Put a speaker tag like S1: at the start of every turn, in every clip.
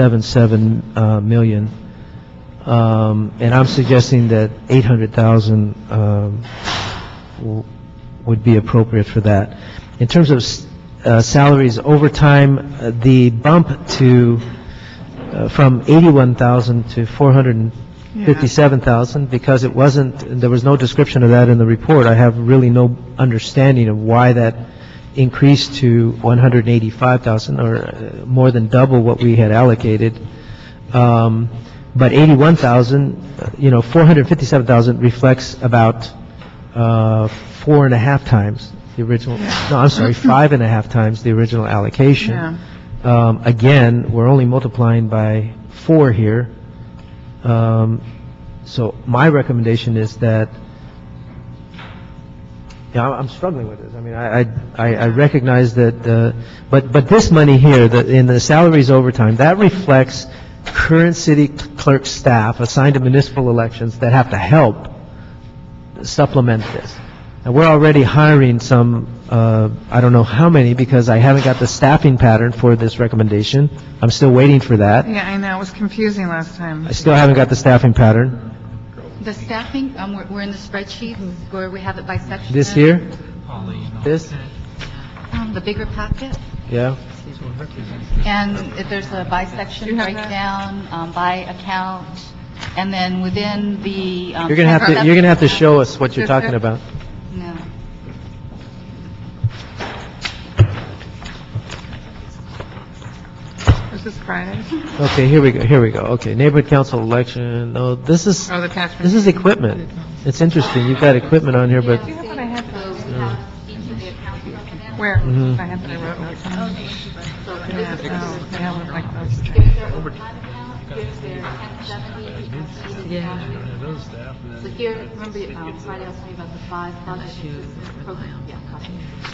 S1: 77 uh, million, Um, and I'm suggesting that 800,000 um, w- would be appropriate for that. In terms of s- uh, salaries, overtime, uh, the bump to, uh, from 81,000 to 457,000, because it wasn't, there was no description of that in the report. I have really no understanding of why that increased to 185,000, or uh, more than double what we had allocated. Um, But 81,000, uh, you know, 457,000 reflects about uh, four and a half times the original, no, I'm sorry, five and a half times the original allocation.
S2: Yeah.
S1: Um, Again, we're only multiplying by four here. Um, So my recommendation is that, yeah, I'm I'm struggling with this. I mean, I, I- I I recognize that, uh, but, but this money here, the- in the salaries overtime, that reflects current city clerk staff assigned to municipal elections that have to help supplement this. And we're already hiring some, uh, I don't know how many, because I haven't got the staffing pattern for this recommendation. I'm still waiting for that.
S2: Yeah, I know, it was confusing last time.
S1: I still haven't got the staffing pattern.
S3: The staffing, um, we're, we're in the spreadsheet where we have it by section.
S1: This here? This?
S3: Um, the bigger packet,
S1: Yeah?
S3: and if there's a by
S2: Do
S3: section
S2: you have that?
S3: breakdown, um, by account, and then within the, um.
S1: You're gonna have to, you're gonna have to show us what you're talking about.
S3: No.
S2: Was this Friday?
S1: Okay, here we go, here we go. Okay, neighborhood council election, no, this is,
S2: Oh, the tax.
S1: this is equipment. It's interesting, you've got equipment on here, but,
S2: Do you have what I had?
S3: So we have each of the accounts broken
S2: Where?
S4: Mm-hmm.
S1: Mhm.
S2: I had what I wrote.
S3: Oh,
S2: Yeah, no, they have it like those.
S3: Yeah. So here, remember, um, Friday I was talking about the five projects. Yeah, copy.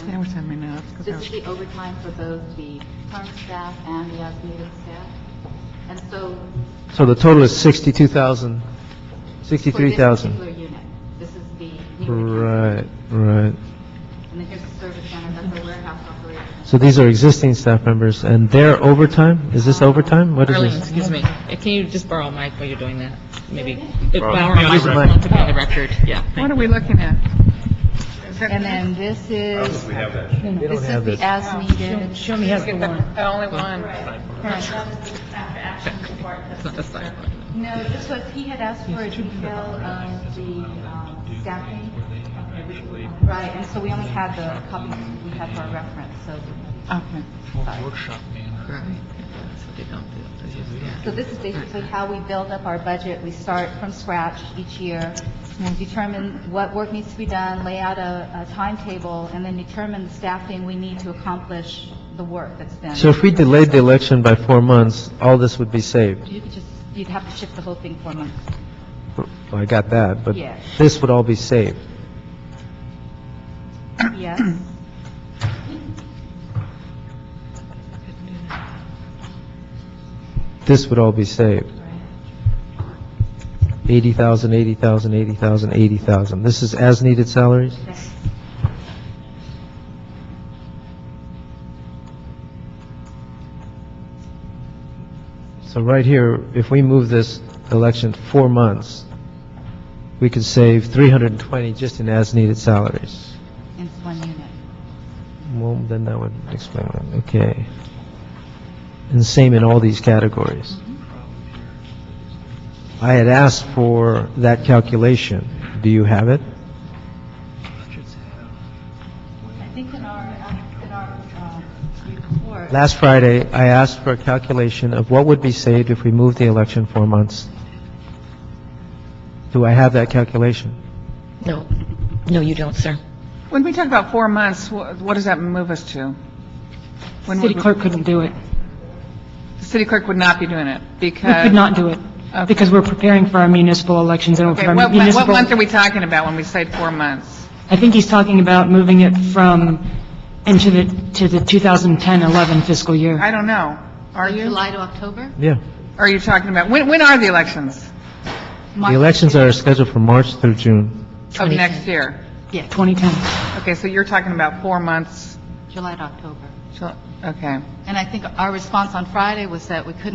S2: They always send me notes. 'cause I
S3: This
S2: was-
S3: is the overtime for both the current staff and the as-needed staff. And so.
S1: so the total is 62,000,
S3: for this
S1: 63,000.
S3: particular unit, This is the. new account.
S1: Right, right.
S3: And then here's the service center, that's the warehouse operation.
S1: So these are existing staff members, and their overtime, is this overtime? What is
S5: Arlene,
S1: this?
S5: excuse me, Uh, can you just borrow a mic while you're doing that? Maybe, Uh, if
S6: Borrow-
S5: Laura
S6: yeah,
S5: might
S6: leave it.
S5: want to be on the record, yeah.
S2: What are we looking at? Is that-
S3: And then this is,
S6: We have that.
S1: They don't
S3: this
S1: have
S3: is the
S1: this.
S3: as-needed.
S5: Show me how to
S2: The only one.
S5: It's not the side one.
S3: No, this was, he had asked for a detail of Uh, the um, staffing. Right, and so we only had the copies we had for our reference, so,
S2: Okay.
S3: sorry.
S5: Right. So they don't do it.
S3: So this is basically how we build up our budget. We start from scratch each year, determine what work needs to be done, lay out a, a timetable, and then determine the staffing we need to accomplish the work that's been.
S1: So if we delayed the election by four months, all this would be saved.
S3: You could just, you'd have to shift the whole thing four months.
S1: Well, I got that, but
S3: Yeah.
S1: this would all be saved.
S3: Yes?
S1: This would all be saved. 80,000, 80,000, 80,000, 80,000. This is as-needed salaries? So right here, if we move this election four months, we could save 320 just in as-needed salaries.
S3: In one unit.
S1: Well, then that would explain it, okay. And same in all these categories. I had asked for that calculation. Do you have it?
S3: I think in our, in our um, report,
S1: Last Friday, I asked for a calculation of what would be saved if we moved the election four months. Do I have that calculation?
S5: No, no, you don't, sir.
S2: When we talk about four months, wha- what does that move us to? When
S4: City
S2: would-
S4: clerk couldn't do it.
S2: The city clerk would not be doing it
S4: We
S2: because.
S4: could not do it,
S2: Uh, Okay.
S4: because we're preparing for our municipal elections and we're
S2: Okay,
S4: for our
S2: what, mon- what
S4: municipal...
S2: month are we talking about when we say four months?
S4: I think he's talking about moving it from, into the, to the 2010-11 fiscal year.
S2: I don't know. Are you?
S3: July to October?
S1: Yeah.
S2: Are you talking about, when, when are the elections
S1: The elections are scheduled for March through June.
S2: of
S5: 2010.
S2: next year?
S3: Yes,
S4: 2010.
S2: Okay, so you're talking about four months,
S3: July to October.
S2: Ju- okay.
S3: And I think our response on Friday was that we couldn't